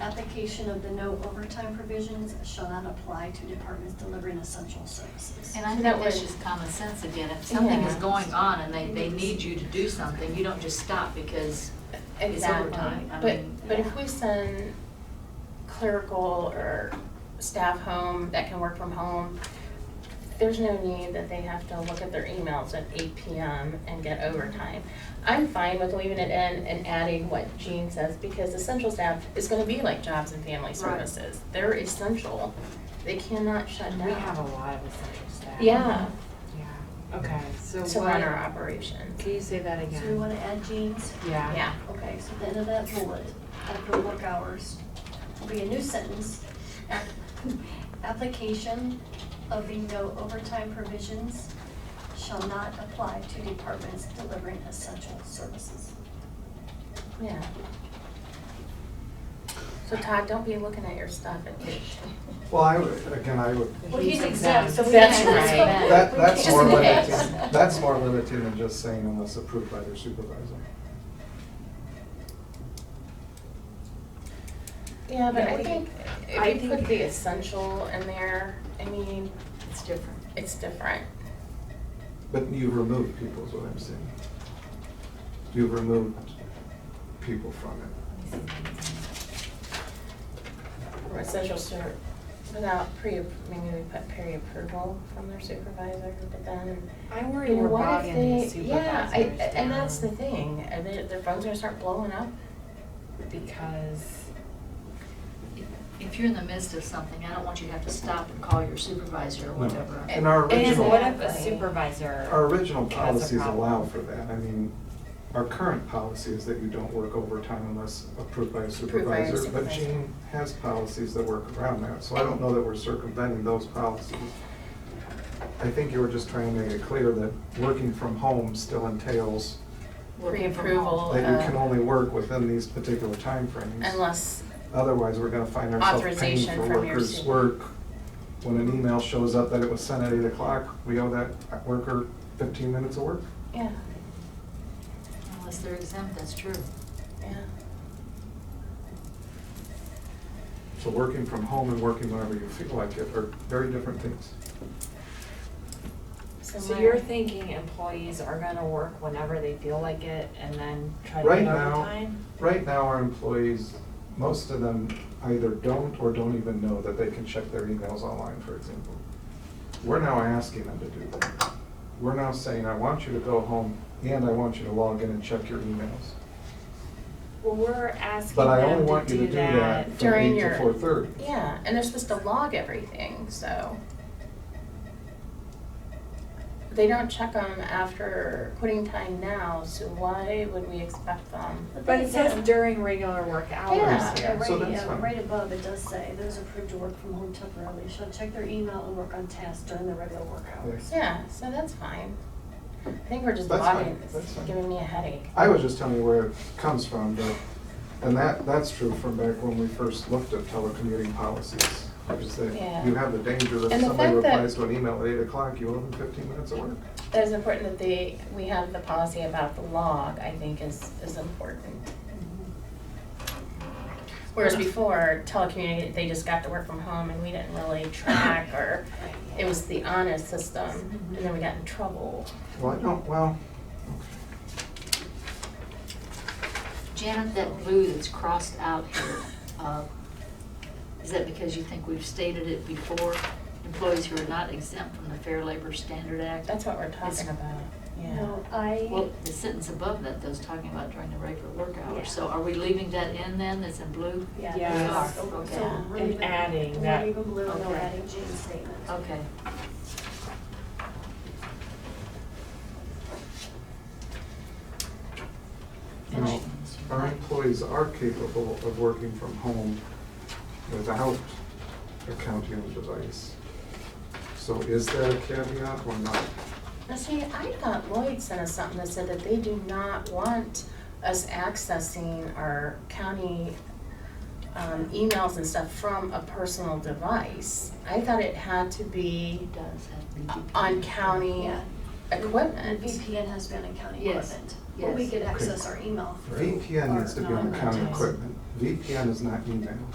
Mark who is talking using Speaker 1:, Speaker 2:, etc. Speaker 1: application of the no overtime provisions shall not apply to departments delivering essential services.
Speaker 2: And I think
Speaker 3: That
Speaker 2: that's
Speaker 3: was-
Speaker 2: just common sense again. If something is
Speaker 3: Yeah.
Speaker 2: going on and they, they need you to do something, you don't just stop because it's
Speaker 3: Exactly.
Speaker 2: overtime. I
Speaker 3: But,
Speaker 2: mean,
Speaker 3: but if we send clerical or staff home that can work from home, there's no need that they have to look at their emails at eight PM and get overtime. I'm fine with leaving it in and adding what Jean says, because essential staff is gonna be like jobs and family services. They're essential, they cannot shut
Speaker 4: We have a
Speaker 3: down.
Speaker 4: lot of essential staff.
Speaker 3: Yeah,
Speaker 4: Yeah, okay, so
Speaker 3: to run our
Speaker 4: what,
Speaker 3: operations,
Speaker 4: can you say that
Speaker 1: So we
Speaker 4: again?
Speaker 1: wanna add jeans?
Speaker 4: Yeah.
Speaker 3: yeah.
Speaker 1: Okay, so the end of that bullet, after work hours, will be a new sentence. Application of the no overtime provisions shall not apply to departments delivering essential services.
Speaker 3: Yeah. So Todd, don't be looking at your stuff at page.
Speaker 5: Well, I, would- again, I would,
Speaker 1: Well, he's exempt, so we
Speaker 3: That's
Speaker 1: can't-
Speaker 3: right.
Speaker 5: that,
Speaker 1: we
Speaker 5: that's
Speaker 1: can't-
Speaker 5: more
Speaker 3: just-
Speaker 5: limiting, that's more limiting than just saying unless approved by their supervisor.
Speaker 3: Yeah, but
Speaker 4: Yeah,
Speaker 3: I
Speaker 4: we-
Speaker 3: think
Speaker 4: I
Speaker 3: if you put
Speaker 4: think-
Speaker 3: the essential in there, I mean,
Speaker 2: It's different.
Speaker 3: it's different.
Speaker 5: But you've removed people is what I'm saying. You've removed people from it.
Speaker 3: Or Essential ser, without pre, maybe we put pre-approval from their supervisor, but then,
Speaker 4: I worry
Speaker 3: you know,
Speaker 4: we're
Speaker 3: what
Speaker 4: bogging
Speaker 3: if
Speaker 4: these
Speaker 3: they, yeah,
Speaker 4: supervisors
Speaker 3: I, and that's the
Speaker 4: down
Speaker 3: thing, are they, their phones gonna start blowing up?
Speaker 4: Because,
Speaker 2: If you're in the midst of something, I don't want you to have to stop and call your supervisor or whatever.
Speaker 5: And our
Speaker 3: And
Speaker 4: and
Speaker 5: original.
Speaker 4: what if a
Speaker 3: Exactly.
Speaker 4: supervisor?
Speaker 5: Our original
Speaker 4: has a
Speaker 5: policies
Speaker 4: problem?
Speaker 5: allow for that. I mean, our current policy is that you don't work overtime unless approved by a
Speaker 3: Approved by a
Speaker 5: supervisor. But
Speaker 3: supervisor.
Speaker 5: Jean has policies that work around that, so I don't know that we're circumventing those policies. I think you were just trying to make it clear that working from home still entails
Speaker 2: Working from
Speaker 3: Pre-approval
Speaker 2: home.
Speaker 5: that you can
Speaker 3: of,
Speaker 5: only work within these particular timeframes.
Speaker 3: unless,
Speaker 5: Otherwise, we're gonna find ourselves paying
Speaker 3: Authorization
Speaker 5: for
Speaker 3: from your
Speaker 5: workers'
Speaker 3: super-
Speaker 5: work. When an email shows up that it was sent at eight o'clock, we owe that worker fifteen minutes of work.
Speaker 3: yeah,
Speaker 2: Unless they're exempt, that's true.
Speaker 3: yeah.
Speaker 5: So working from home and working whenever you feel like it are very different things.
Speaker 4: So
Speaker 3: my-
Speaker 4: you're thinking employees are gonna work whenever they feel like it and then try to
Speaker 5: Right
Speaker 4: get
Speaker 5: now-
Speaker 4: overtime?
Speaker 5: Right now, our employees, most of them either don't or don't even know that they can check their emails online, for example. We're now asking them to do that. We're now saying, I want you to go home and I want you to log in and check your emails.
Speaker 4: Well, we're asking
Speaker 5: But I only
Speaker 4: them
Speaker 5: want
Speaker 4: to
Speaker 5: you to
Speaker 4: do
Speaker 5: do
Speaker 4: that.
Speaker 5: that from
Speaker 3: During
Speaker 5: eight
Speaker 3: your-
Speaker 5: to four thirty.
Speaker 3: Yeah, and they're supposed to log everything, so. They don't check them after quitting time now, so why would we expect them?
Speaker 4: But it says
Speaker 1: Yeah.
Speaker 4: during regular work
Speaker 3: Yeah.
Speaker 4: hours
Speaker 1: Yeah,
Speaker 4: here.
Speaker 5: So
Speaker 1: right,
Speaker 5: that's
Speaker 1: yeah,
Speaker 5: fine.
Speaker 1: right above, it does say, those approved to work from home temporarily shall check their email and work on tasks during the regular work hours.
Speaker 3: Yeah, so that's fine. I think we're just
Speaker 5: That's fine,
Speaker 3: logging,
Speaker 5: that's
Speaker 3: it's
Speaker 5: fine.
Speaker 3: giving me a headache.
Speaker 5: I was just telling you where it comes from, but, and that, that's true from back when we first looked at telecommuting policies. Is that
Speaker 3: Yeah.
Speaker 5: you have the danger that if
Speaker 3: And the
Speaker 5: somebody
Speaker 3: fact that-
Speaker 5: replies to an email at eight o'clock, you owe them fifteen minutes of work.
Speaker 3: That is important that they, we have the policy about the log, I think is, is important. Whereas before, telecommunications, they just got to work from home and we didn't really track or It was the honor system, and then we got in trouble.
Speaker 5: Well, I don't, well,
Speaker 2: Janet, that blue that's crossed out here, uh, is that because you think we've stated it before? Employees who are not exempt from the Fair Labor Standard Act?
Speaker 3: That's what we're talking
Speaker 2: It's-
Speaker 3: about, yeah.
Speaker 1: No, I.
Speaker 2: Well, the sentence above that, those talking about during the regular work hours, so are we leaving that in then, that's in blue?
Speaker 1: Yeah.
Speaker 4: Yes.
Speaker 1: so- so
Speaker 2: Yeah,
Speaker 1: we're
Speaker 4: and
Speaker 1: leaving-
Speaker 4: adding
Speaker 1: We're
Speaker 4: that-
Speaker 1: leaving blue and we're
Speaker 2: okay.
Speaker 1: adding Jean's statement.
Speaker 2: Okay,
Speaker 5: you know, our employees are capable of working from home without a counting device. So is there a caveat or not?
Speaker 3: Now, see, I thought Lloyd sent us something that said that they do not want us accessing our county um, emails and stuff from a personal device. I thought it had to be
Speaker 2: it does have to be.
Speaker 3: on county
Speaker 1: Yeah. And
Speaker 3: equipment.
Speaker 1: VPN has been on county
Speaker 2: Yes,
Speaker 1: equipment. But we
Speaker 2: yes.
Speaker 1: could access our email through.
Speaker 5: VPN needs to be
Speaker 1: our
Speaker 5: on county
Speaker 1: non-advertised.
Speaker 5: equipment. VPN is not email.